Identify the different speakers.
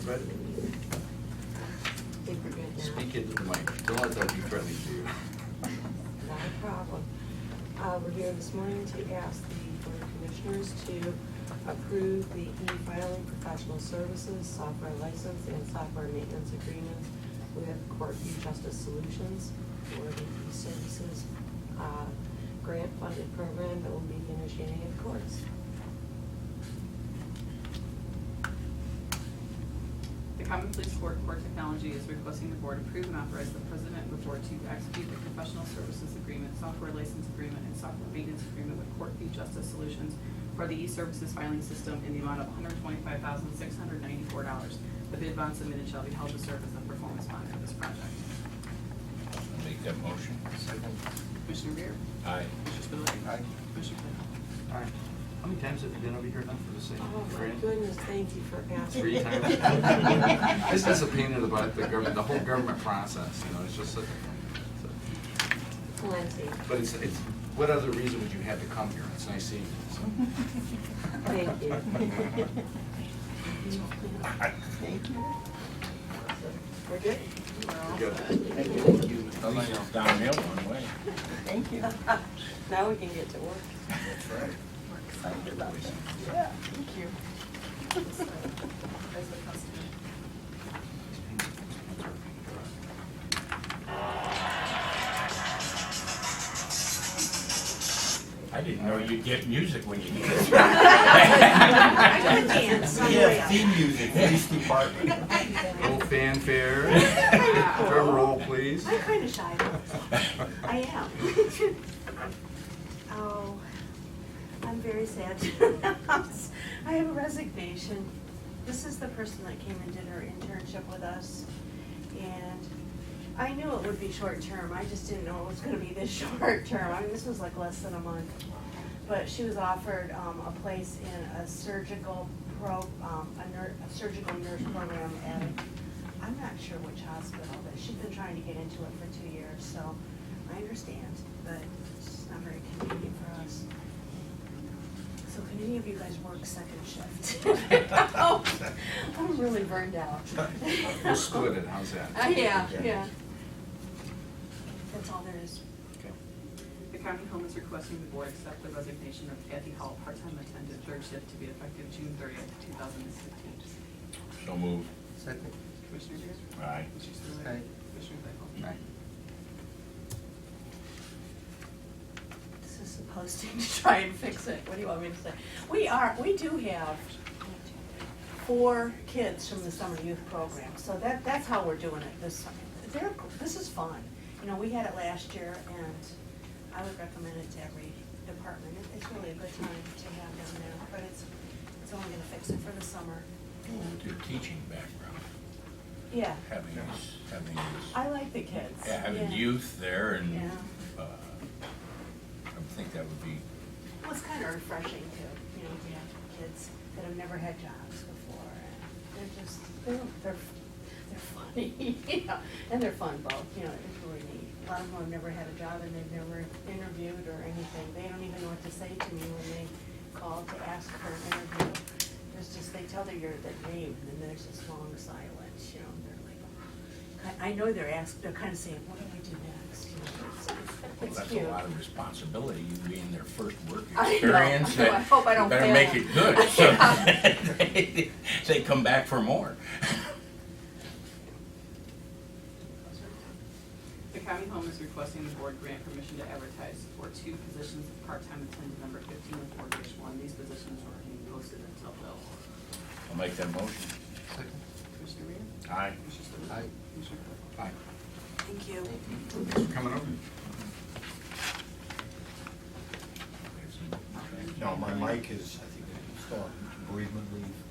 Speaker 1: Fred,
Speaker 2: I think we're good now.
Speaker 1: speak into the mic, don't let that be friendly to you.
Speaker 2: Not a problem. Uh, We're here this morning to ask the Board of Commissioners to approve the e-filing professional services, software license, and software maintenance agreements with Courtview Justice Solutions for the e-services uh, grant-funded program that will be initiating in courts.
Speaker 3: The Common Police Court Core Technology is requesting the board approve and authorize the president of the board to execute the professional services agreement, software license agreement, and software maintenance agreement with Courtview Justice Solutions for the e-services filing system in the amount of one hundred twenty-five thousand, six hundred ninety-four dollars. The bid bond submitted shall be held to serve as the performance bond for this project.
Speaker 4: I'll Make that motion.
Speaker 1: Second.
Speaker 3: Commissioner Rea?
Speaker 4: Aye.
Speaker 3: Commissioner Spillier?
Speaker 1: Aye.
Speaker 3: Commissioner Claypool?
Speaker 1: All right, how many times have you been over here now for the same
Speaker 2: Oh, my
Speaker 1: grant?
Speaker 2: goodness, thank you for asking.
Speaker 1: Three times? This is a pain in the butt, the government, the whole government process, you know, it's just, a- so-
Speaker 2: Plenty.
Speaker 1: but it's, it's, what other reason would you have to come here? It's nice seeing you, so.
Speaker 2: Thank you.
Speaker 5: Thank you.
Speaker 2: We're good?
Speaker 1: Good.
Speaker 4: At least it's downhill one way.
Speaker 5: Thank you.
Speaker 2: Now we can get to work.
Speaker 1: That's right.
Speaker 5: We're excited about that. Yeah, thank you.
Speaker 3: As the customer.
Speaker 4: I didn't know you'd get music when you needed it.
Speaker 2: I can dance.
Speaker 4: We have theme music, police department.
Speaker 1: Little fanfare, drum roll, please.
Speaker 2: I'm kind of shy about this. I am. Oh, I'm very sad to announce, I have a resignation. This is the person that came and did her internship with us. And I knew it would be short-term, I just didn't know it was gonna be this short-term. I mean, this was like less than a month. But she was offered, um, a place in a surgical pro, um, a nur, a surgical nurse program at, I'm not sure which hospital, but she's been trying to get into it for two years, so I understand, but it's just not very convenient for us. So can any of you guys work second shift? I'm really burned out.
Speaker 1: We'll split it, how's
Speaker 2: Uh,
Speaker 1: that?
Speaker 2: yeah, yeah. That's all there is.
Speaker 1: Okay.
Speaker 3: The county home is requesting the board accept the resignation of Kathy Hall, part-time attendant, third shift, to be effective June thirtieth, two thousand and sixteen.
Speaker 4: So move.
Speaker 1: Second.
Speaker 3: Commissioner Rea?
Speaker 4: Aye.
Speaker 3: Commissioner Spillier?
Speaker 1: Aye.
Speaker 3: Commissioner Claypool?
Speaker 1: Aye.
Speaker 6: This is a posting to try and fix it, what do you want me to say? We are, we do have four kids from the summer youth program, so that, that's how we're doing it this summer. They're, this is fun, you know, we had it last year, and I would recommend it to every department. It- It's really a good time to have them there, but it's, it's only gonna fix it for the summer.
Speaker 4: Well, with your teaching background,
Speaker 6: Yeah,
Speaker 4: having this, having this,
Speaker 6: I like the kids.
Speaker 4: yeah, having youth there and,
Speaker 6: Yeah.
Speaker 4: uh, I would think that would be,
Speaker 6: Well, it's kind of refreshing too, you know, we have kids that have never had jobs before, and they're just, they're, they're, they're funny, you know, and they're fun both, you know, it's really neat. A lot of them have never had a job and they've never interviewed or anything, they don't even know what to say to me when they call to ask for an interview. There's just, they tell their, your, their name, and there's this long silence, you know, and they're like, oh. I, I know they're asked, they're kind of saying, what do I do next, you know, it's,
Speaker 4: well,
Speaker 6: it's
Speaker 4: that's
Speaker 6: cute.
Speaker 4: a lot of responsibility, you being their first work
Speaker 6: I know.
Speaker 4: experience.
Speaker 6: I know. I hope I don't
Speaker 4: Better
Speaker 6: fail
Speaker 4: make
Speaker 6: them.
Speaker 4: it good, so they come back for more.
Speaker 3: The county home is requesting the board grant permission to advertise for two positions of part-time attendant number fifteen and four dash one. These positions are being posted until filled.
Speaker 4: I'll make that motion.
Speaker 1: Second.
Speaker 3: Commissioner Rea?
Speaker 4: Aye.
Speaker 3: Commissioner Spillier?
Speaker 1: Aye.
Speaker 3: Commissioner Claypool?
Speaker 1: Bye.
Speaker 2: Thank you.
Speaker 1: Thanks for coming over.
Speaker 4: There's no-
Speaker 7: No, my mic is, I think, still on bereavement leave.